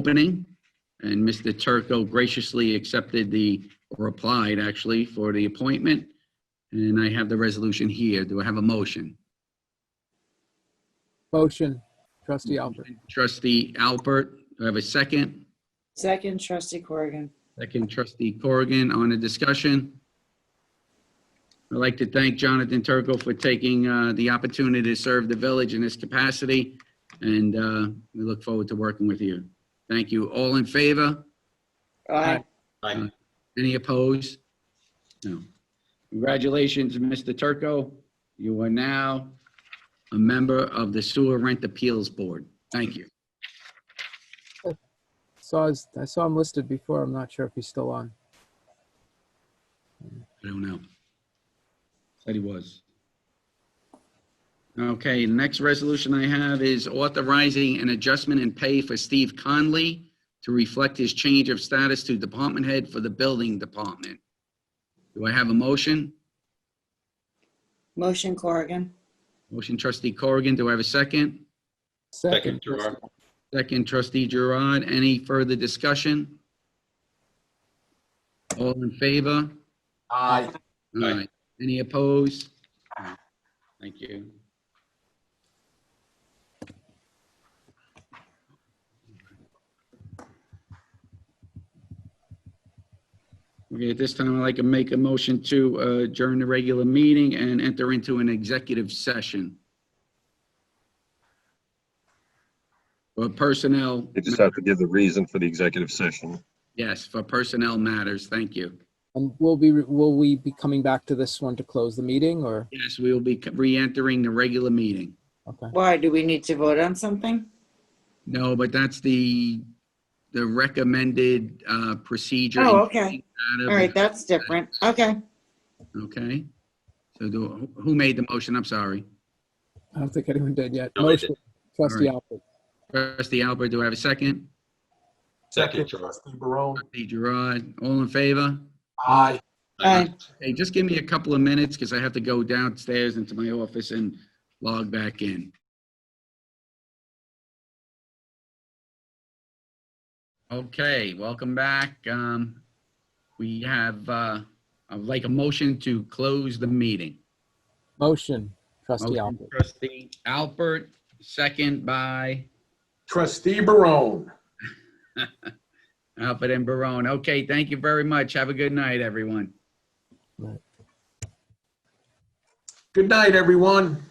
opening, and Mr. Turco graciously accepted the, or applied actually, for the appointment. And I have the resolution here. Do I have a motion? Motion, trustee Alpert. Trustee Albert, do I have a second? Second, trustee Corrigan. Second trustee Corrigan on the discussion. I'd like to thank Jonathan Turco for taking uh, the opportunity to serve the village in this capacity, and uh, we look forward to working with you. Thank you. All in favor? Aye. Aye. Any opposed? No. Congratulations, Mr. Turco. You are now a member of the Sewer Rent Appeals Board. Thank you. Saw his, I saw him listed before. I'm not sure if he's still on. I don't know. Said he was. Okay, the next resolution I have is authorizing an adjustment in pay for Steve Conley to reflect his change of status to department head for the building department. Do I have a motion? Motion Corrigan. Motion trustee Corrigan, do I have a second? Second, trustee- Gerard. Second trustee Gerard, any further discussion? All in favor? Aye. All Aye. right. Any opposed? No. Thank you. Okay, at this time, I'd like to make a motion to uh, adjourn the regular meeting and enter into an executive session. For personnel, You just have to give the reason for the executive session. yes, for personnel matters, thank you. And will be, will we be coming back to this one to close the meeting or? Yes, we will be re-entering the regular meeting. Okay. Why, do we need to vote on something? No, but that's the, the recommended uh, procedure. Oh, okay. Out of- All right, that's different. Okay. Okay. So do, who made the motion? I'm sorry. I don't think anyone did yet. No, I Motion, trustee All Alpert. Trustee Albert, do I have a second? Second, Gerard. Trustee Gerard, all in favor? Aye. Hey, just give me a couple of minutes because I have to go downstairs into my office and log back in. Okay, welcome back. Um, We have, uh, I'd like a motion to close the meeting. Motion, trustee Motion, Alpert. Trustee Albert, second by Trustee Barone. Albert and Barone. Okay, thank you very much. Have a good night, everyone. Good night, everyone.